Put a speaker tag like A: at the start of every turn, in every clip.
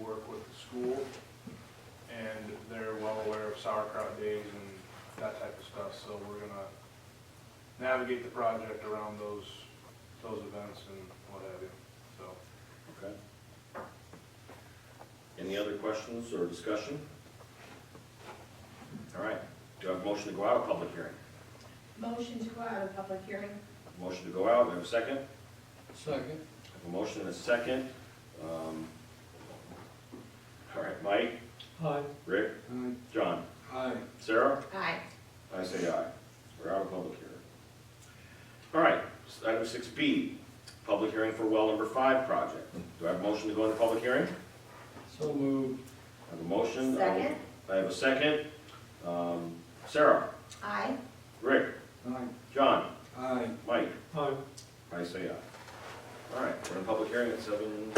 A: work with the school, and they're well aware of sauerkraut days and that type of stuff, so we're gonna navigate the project around those, those events and what have you, so.
B: Okay. Any other questions or discussion? All right, do I have a motion to go out of public hearing?
C: Motion to go out of public hearing.
B: Motion to go out, we have a second?
D: Second.
B: I have a motion and a second. Um, All right, Mike,
D: Aye.
B: Rick,
D: Aye.
B: John,
D: Aye.
B: Sarah?
C: Aye.
B: I say aye. We're out of public hearing. All right, item six B, public hearing for well number five project. Do I have a motion to go into public hearing?
D: So moved.
B: I have a motion. I will-
C: Second.
B: I have a second. Um, Sarah,
C: Aye.
B: Rick,
D: Aye.
B: John,
D: Aye.
B: Mike,
D: Aye.
B: I say aye. All right, we're in public hearing at seven.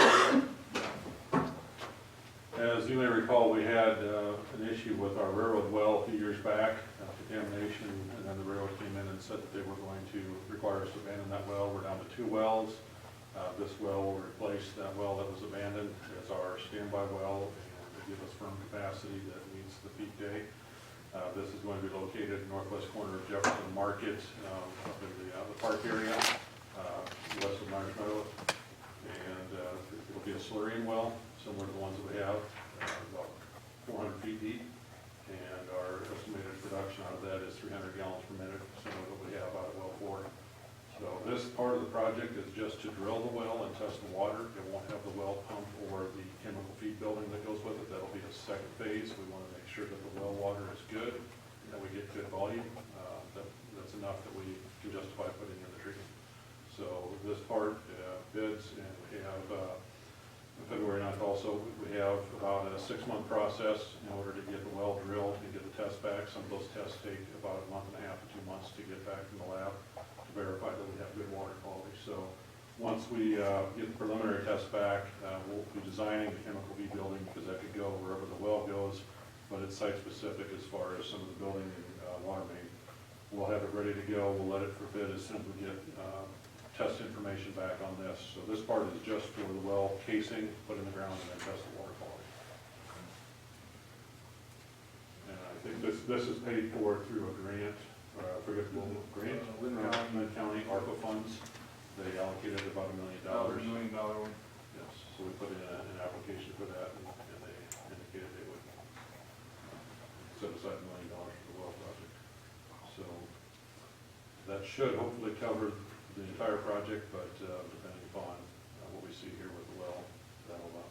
E: As you may recall, we had uh, an issue with our railroad well a few years back, uh, contamination, and then the railroad came in and said that they were going to require us to abandon that well. We're down to two wells. Uh, This well will replace that well that was abandoned as our standby well and give us firm capacity that meets the peak day. Uh, This is going to be located northwest corner of Jefferson Market, um, up in the, uh, the park area, uh, west of Myers Meadow. And uh, it'll be a slurry well, similar to the ones that we have, uh, about 400 feet deep. And our estimated production out of that is 300 gallons per minute, similar to what we have out of well four. So this part of the project is just to drill the well and test the water. It won't have the well pump or the chemical feed building that goes with it. That'll be a second phase. We want to make sure that the well water is good, that we get good volume, uh, that that's enough that we can justify putting in the treatment. So this part uh, bids, and we have, uh, on February 9th also, we have about a six-month process in order to get the well drilled and get the tests back. Some of those tests take about a month and a half to two months to get back from the lab to verify that we have good water quality. So once we uh, get the preliminary tests back, uh, we'll be designing the chemical V building because that could go wherever the well goes, but it's site-specific as far as some of the building and uh, water main. We'll have it ready to go. We'll let it for bid as soon as we get um, test information back on this. So this part is just for the well casing, put in the ground, and then test the water quality. And I think this, this is paid for through a grant, uh, I forget the name of the grant.
A: Uh, Lynn County.
E: Lynn County ARPA funds. They allocated about a million
A: That
E: dollars.
A: was a million dollar one.
E: Yes, so we put in a- an application for that, and and they indicated they would uh, set aside a million dollars for the well project. So that should hopefully cover the entire project, but uh, depending upon uh, what we see here with the well, that'll uh,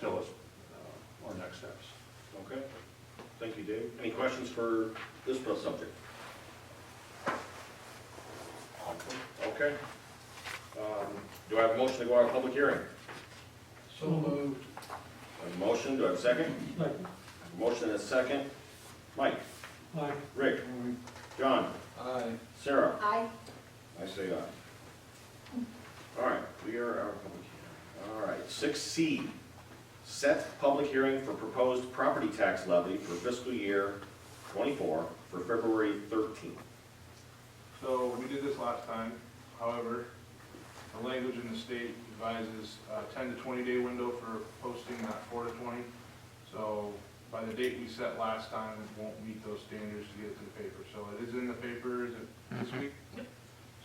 E: tell us uh, our next steps.
B: Okay, thank you, Dave. Any questions for this subject? Okay. Um, Do I have a motion to go out of public hearing?
D: So moved.
B: I have a motion, do I have a second?
D: Second.
B: I have a Motion and a second. Mike,
D: Aye.
B: Rick, John,
D: Aye.
B: Sarah?
C: Aye.
B: I say aye. All right, we are out of public hearing. All right, six C, set public hearing for proposed property tax levy for fiscal year twenty-four for February thirteenth.
A: So we did this last time, however, the language in the state advises a ten to twenty day window for posting, not four to twenty. So by the date we set last time, it won't meet those standards to get it to the paper. So it is in the paper, is it this week?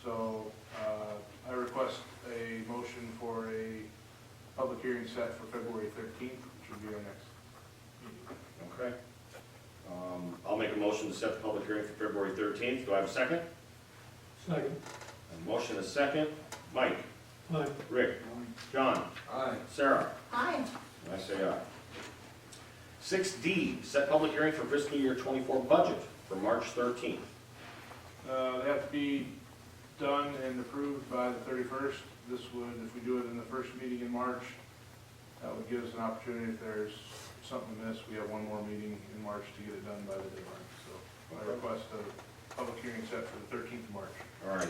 A: So, uh, I request a motion for a public hearing set for February thirteenth, which will be our next meeting.
B: Okay. Um, I'll make a motion to set the public hearing for February thirteenth. Do I have a second?
D: Second.
B: A motion and a second. Mike,
D: Aye.
B: Rick, John,
D: Aye.
B: Sarah?
C: Aye.
B: And I say aye. Six D, set public hearing for fiscal year twenty-four budget for March thirteenth.
A: Uh, They have to be done and approved by the thirty-first. This would, if we do it in the first meeting in March, that would give us an opportunity, if there's something missed, we have one more meeting in March to get it done by the deadline. So I request a public hearing set for the thirteenth of March.
B: All right.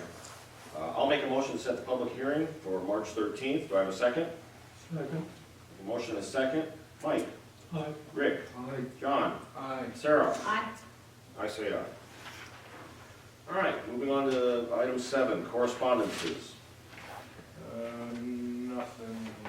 B: Uh, I'll make a motion to set the public hearing for March 13th. Do I have a second?
D: Second.
B: A motion and a second. Mike,
D: Aye.
B: Rick,
D: Aye.
B: John,
D: Aye.
B: Sarah.
C: Aye.
B: I say aye. All right, moving on to item seven, correspondences.
A: Uh, Nothing